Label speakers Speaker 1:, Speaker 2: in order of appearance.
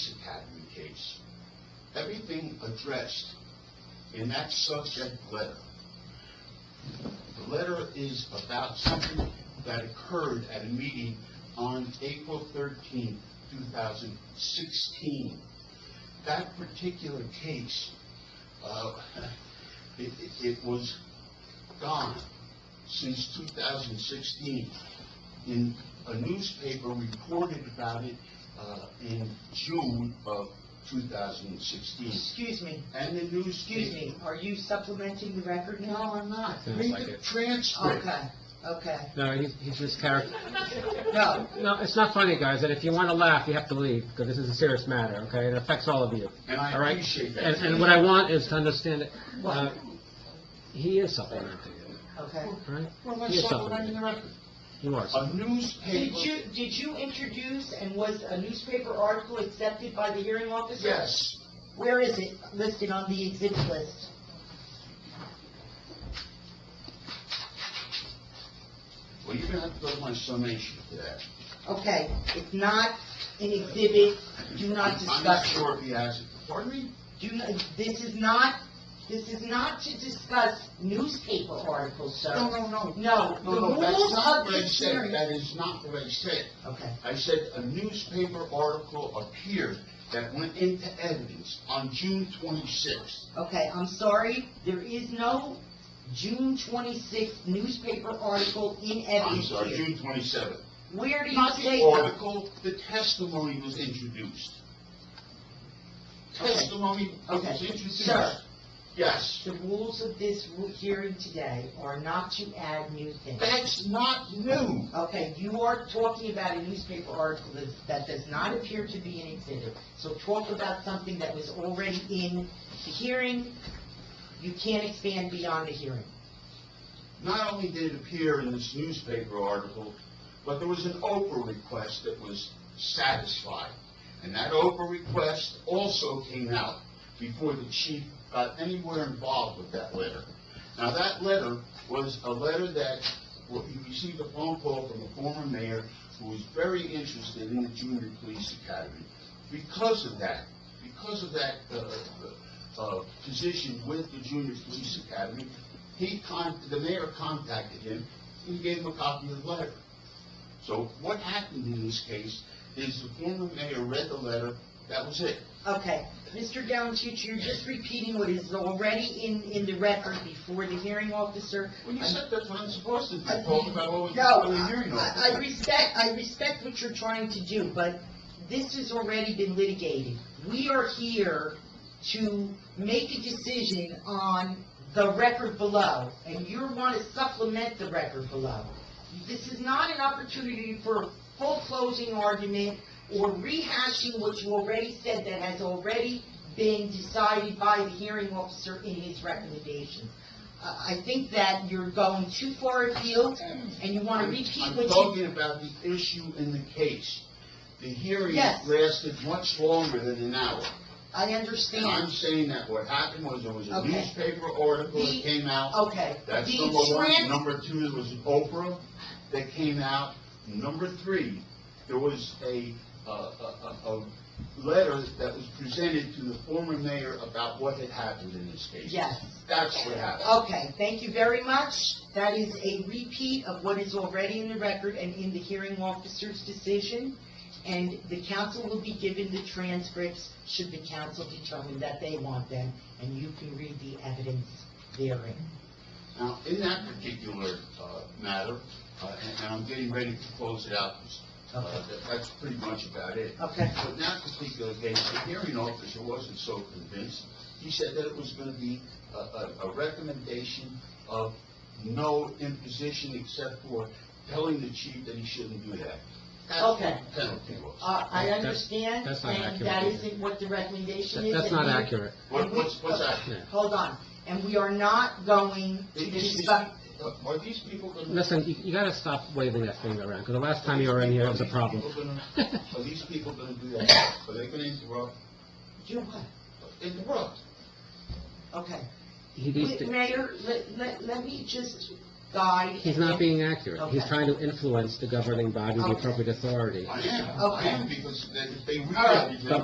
Speaker 1: everything addressed in that subject letter. The letter is about something that occurred at a meeting on April 13, 2016. That particular case, uh, it- it it was gone since 2016. In a newspaper reported about it uh, in June of 2016.
Speaker 2: Excuse me,
Speaker 1: And the newspaper...
Speaker 2: excuse me, are you supplementing the record
Speaker 1: No,
Speaker 2: now?
Speaker 1: I'm not.
Speaker 3: Sounds
Speaker 1: Read
Speaker 3: like
Speaker 1: the
Speaker 3: it.
Speaker 1: transcript.
Speaker 2: Okay, okay.
Speaker 3: No, he's, he's his character.
Speaker 2: No,
Speaker 3: No, it's not funny, guys, and if you want to laugh, you have to leave, because this is a serious matter, okay? It affects all of you.
Speaker 1: And I
Speaker 3: all right?
Speaker 1: appreciate that.
Speaker 3: And, and what I want is to understand that,
Speaker 2: What?
Speaker 3: uh, he is supplementing it,
Speaker 2: okay.
Speaker 3: all right?
Speaker 1: Well,
Speaker 3: He
Speaker 1: that's
Speaker 3: is
Speaker 1: supplementing
Speaker 3: supplementing
Speaker 1: the record.
Speaker 3: You are.
Speaker 1: A
Speaker 2: Did
Speaker 1: newspaper...
Speaker 2: you, did you introduce and was a newspaper article accepted by the hearing officer?
Speaker 1: Yes.
Speaker 2: Where is it listed on the exhibit list?
Speaker 1: Well, you're gonna have to go to my summation for that.
Speaker 2: Okay, it's not an exhibit, do not
Speaker 1: I'm not
Speaker 2: discuss it.
Speaker 1: sure if he has it. Pardon me?
Speaker 2: Do not, this is not, this is not to discuss newspaper articles, sir.
Speaker 1: No, no, no.
Speaker 2: No, the
Speaker 1: No, no, that's
Speaker 2: rules
Speaker 1: not
Speaker 2: of
Speaker 1: what I
Speaker 2: this
Speaker 1: said.
Speaker 2: hearing.
Speaker 1: That is not what I said.
Speaker 2: Okay,
Speaker 1: I said a newspaper article appeared that went into evidence on June 26th.
Speaker 2: okay, I'm sorry, there is no June twenty-sixth newspaper article in
Speaker 1: I'm
Speaker 2: evidence
Speaker 1: sorry,
Speaker 2: here.
Speaker 1: June 27th.
Speaker 2: Where do you
Speaker 1: Not
Speaker 2: say
Speaker 1: the
Speaker 2: that?
Speaker 1: article, the testimony was introduced. Testimony was
Speaker 2: Okay.
Speaker 1: introduced.
Speaker 2: Sir.
Speaker 1: Yes.
Speaker 2: The rules of this ru- hearing today are not to add new things.
Speaker 1: That's not new.
Speaker 2: Okay, you are talking about a newspaper article that, that does not appear to be an exhibit. So talk about something that was already in the hearing. You can't expand beyond the hearing.
Speaker 1: Not only did it appear in this newspaper article, but there was an Oprah request that was satisfied. And that Oprah request also came out before the chief got anywhere involved with that letter. Now, that letter was a letter that, well, he received a phone call from a former mayor who was very interested in the junior police academy. Because of that, because of that, uh, uh, position with the junior police academy, he con, the mayor contacted him, and gave him a copy of the letter. So what happened in this case is the former mayor read the letter, that was it.
Speaker 2: Okay, Mr. Downtuch, you're just repeating what is already in, in the record before the hearing officer.
Speaker 1: Well, you
Speaker 2: I'm-
Speaker 1: said that's what I'm supposed to do, talk about what we
Speaker 2: No,
Speaker 1: got Oh, in the hearing
Speaker 2: I I
Speaker 1: officer.
Speaker 2: respect, I respect what you're trying to do, but this has already been litigated. We are here to make a decision on the record below, and you want to supplement the record below. This is not an opportunity for a full closing argument or rehashing what you already said that has already been decided by the hearing officer in his recommendations. I I think that you're going too far afield, and you want to repeat
Speaker 1: I'm
Speaker 2: what you...
Speaker 1: talking about the issue in the case. The hearing
Speaker 2: Yes.
Speaker 1: lasted much longer than an hour.
Speaker 2: I
Speaker 1: And I'm
Speaker 2: understand.
Speaker 1: saying that what happened was there was a
Speaker 2: Okay.
Speaker 1: newspaper article
Speaker 2: The-
Speaker 1: that came out.
Speaker 2: Okay.
Speaker 1: That's
Speaker 2: The
Speaker 1: number one.
Speaker 2: trans-
Speaker 1: Number two, there was Oprah that came out. Number three, there was a, uh, a, a, a letter that was presented to the former mayor about what had happened in this case.
Speaker 2: Yes.
Speaker 1: That's what happened.
Speaker 2: Okay, thank you very much. That is a repeat of what is already in the record and in the hearing officer's decision, and the council will be given the transcripts should the council determine that they want them, and you can read the evidence therein.
Speaker 1: Now, in that particular, uh, matter, uh, and, and I'm getting ready to close it out, uh, that- that's pretty much about it.
Speaker 2: Okay?
Speaker 1: But in that particular case, the hearing officer wasn't so convinced. He said that it was going to be a, a, a recommendation of no imposition except for telling the chief that he shouldn't do that. That's what
Speaker 2: Okay.
Speaker 1: the Penalty was.
Speaker 2: Uh, I
Speaker 3: That's-
Speaker 2: understand,
Speaker 3: that's not
Speaker 2: and that
Speaker 3: accurate.
Speaker 2: isn't what the recommendation
Speaker 3: That-
Speaker 2: is.
Speaker 3: That's
Speaker 2: and
Speaker 3: not
Speaker 2: you-
Speaker 3: accurate.
Speaker 1: What, what's, what's that?
Speaker 3: Yeah.
Speaker 2: Hold on, and we are not going to
Speaker 1: Is- is- is-
Speaker 2: discuss...
Speaker 1: uh, Are these people going to?
Speaker 3: Listen, you, you gotta stop waving that finger around, because the last time you were in here, it was a problem.
Speaker 1: Are these people going to do that? Are they going to interrupt?
Speaker 2: Do what?
Speaker 1: Interrupt.
Speaker 2: Okay.
Speaker 3: He needs
Speaker 2: Wait,
Speaker 3: to-
Speaker 2: Mayor, let, let, let me just guide.
Speaker 3: He's not being accurate. He's
Speaker 2: Okay.
Speaker 3: trying to influence the governing body, the
Speaker 2: Okay.
Speaker 3: appropriate authority.
Speaker 1: I am, I am, because they, they. really-
Speaker 3: But